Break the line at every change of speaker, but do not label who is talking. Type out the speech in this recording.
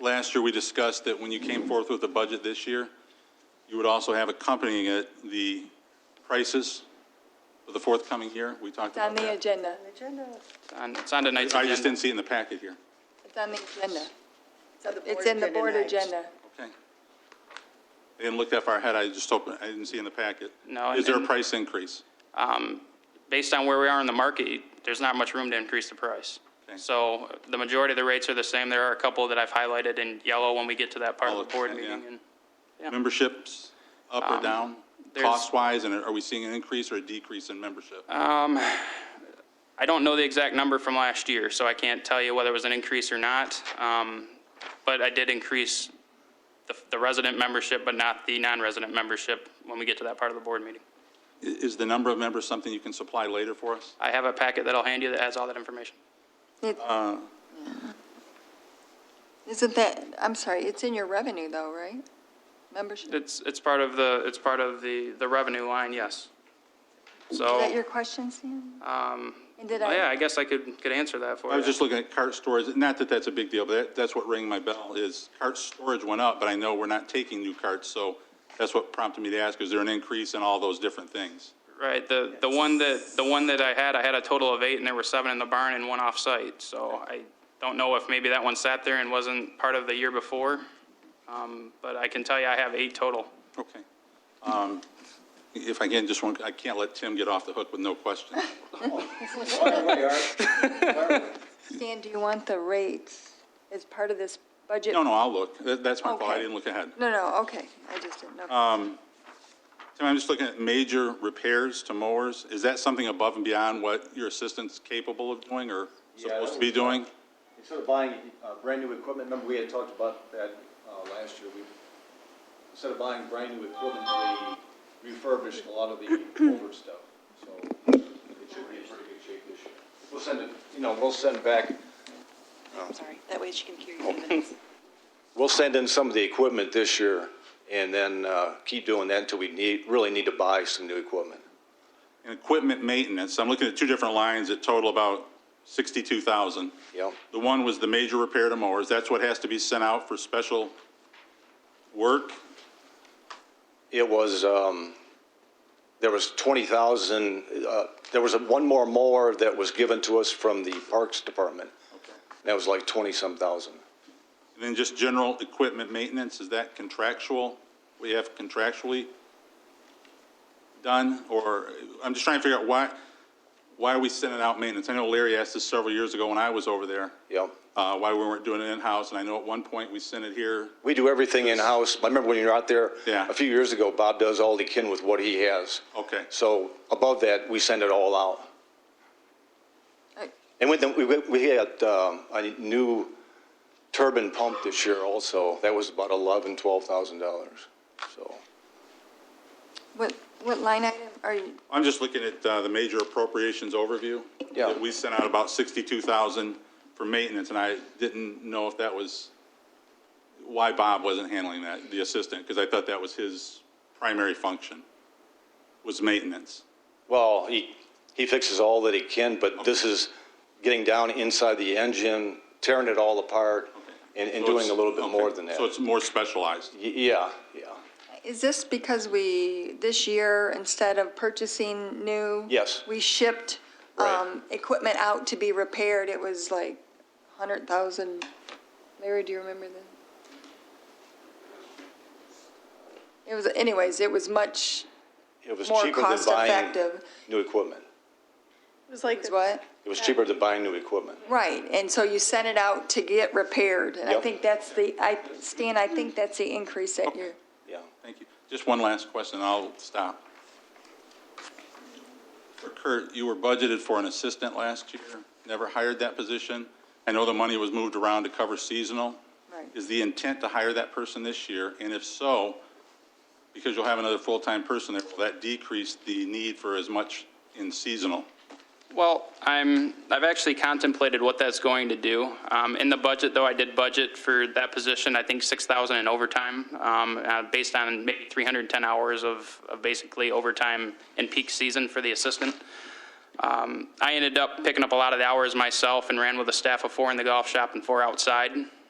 last year, we discussed that when you came forth with the budget this year, you would also have accompanying it the prices for the forthcoming year. We talked
It's on
about
the
that.
agenda.
on- It's on tonight's
I just
agenda.
didn't see it in the packet here.
It's on the agenda. It's in the board agenda.
Okay. I didn't look that far ahead. I just opened, I didn't see in the packet.
No,
Is there a
and-
price increase?
Um, Based on where we are in the market, there's not much room to increase the price.
Okay.
So uh, the majority of the rates are the same. There are a couple that I've highlighted in yellow when we get to that part
All
of
of
the board
that, Oh, yeah.
meeting. and
Memberships up or down,
Um, there's-
cost-wise, and are we seeing an increase or a decrease in membership?
Uh, I don't know the exact number from last year, so I can't tell you whether it was an increase or not. Um, But I did increase the- the resident membership, but not the non-resident membership when we get to that part of the board meeting.
I- Is the number of members something you can supply later for us?
I have a packet that I'll hand you that has all that information.
Isn't that, I'm sorry, it's in your revenue though, right? Membership? Is
It's, it's part of the, it's part of the, the revenue line, yes.
that
So,
your question, Sam?
um,
And did
oh. yeah,
I,
I guess I could, could answer that for you.
I was just looking at cart storage, not that that's a big deal, but that, that's what rang my bell, is cart storage went up, but I know we're not taking new carts, so that's what prompted me to ask, is there an increase in all those different things?
Right, the, the one that, the one that I had, I had a total of eight, and there were seven in the barn and one off-site. So I don't know if maybe that one sat there and wasn't part of the year before, um, but I can tell you I have eight total.
Okay. Um, If I can, just one, I can't let Tim get off the hook with no question.
Stan, do you want the rates as part of this budget?
No, no, I'll look. That- That's my fault, I
Okay.
didn't look ahead.
No, no, okay, I just didn't know.
Tim, I'm just looking at major repairs to mowers. Is that something above and beyond what your assistant's capable of doing or supposed to be doing?
Instead of buying uh, brand-new equipment, remember we had talked about that uh, last year, we, instead of buying brand-new equipment, we refurbished a lot of the older stuff, so it should be in pretty good shape this year. We'll send it, you know, we'll send back,
I'm sorry, that way she can hear you in the minutes.
we'll send in some of the equipment this year, and then uh, keep doing that until we need, really need to buy some new equipment.
And equipment maintenance, I'm looking at two different lines that total about 62,000.
Yep.
The one was the major repair to mowers, that's what has to be sent out for special work.
It was, um, there was 20,000, uh, there was a- one more mower that was given to us from the Parks Department. That was like 20-some thousand.
And then just general equipment maintenance, is that contractual? We have contractually done, or, I'm just trying to figure out why, why are we sending out maintenance? I know Larry asked this several years ago when I was over there.
Yep.
Uh, why we weren't doing it in-house, and I know at one point we sent it here.
We do everything in-house. I remember when you were out there
Yeah.
a few years ago, Bob does all he can with what he has.
Okay.
So above that, we send it all out.
Hey.
And with, the- we, we had um, a new turbine pump this year also. That was about 11, $12,000, so.
What, what line item are you,
I'm just looking at uh, the major appropriations overview.
Yeah.
That We sent out about 62,000 for maintenance, and I didn't know if that was, why Bob wasn't handling that, the assistant, because I thought that was his primary function, was maintenance.
Well, he, he fixes all that he can, but this is getting down inside the engine, tearing it all apart, and, and
So
doing
it's-
a little bit
okay.
more than that.
So it's more specialized.
Y- Yeah, yeah.
is this because we, this year, instead of purchasing new?
Yes.
We shipped,
Right.
um, equipment out to be repaired, it was like 100,000. Larry, do you remember that? It was, anyways, it was much
It was
more
cheaper than buying
cost-effective.
new equipment.
It was like,
Is what?
It was cheaper than buying new equipment.
Right, and so you sent it out to get repaired, and I
Yep.
think that's the, I, Stan, I think that's the increase that you're,
Yeah.
Thank you. Just one last question, and I'll stop. For Kurt, you were budgeted for an assistant last year, never hired that position. I know the money was moved around to cover seasonal.
Right.
Is the intent to hire that person this year? And if so, because you'll have another full-time person there, will that decrease the need for as much in seasonal?
Well, I'm, I've actually contemplated what that's going to do. Um, In the budget, though, I did budget for that position, I think 6,000 in overtime, um, uh, based on maybe 310 hours of of basically overtime in peak season for the assistant. Um, I ended up picking up a lot of the hours myself and ran with a staff of four in the golf shop and four outside.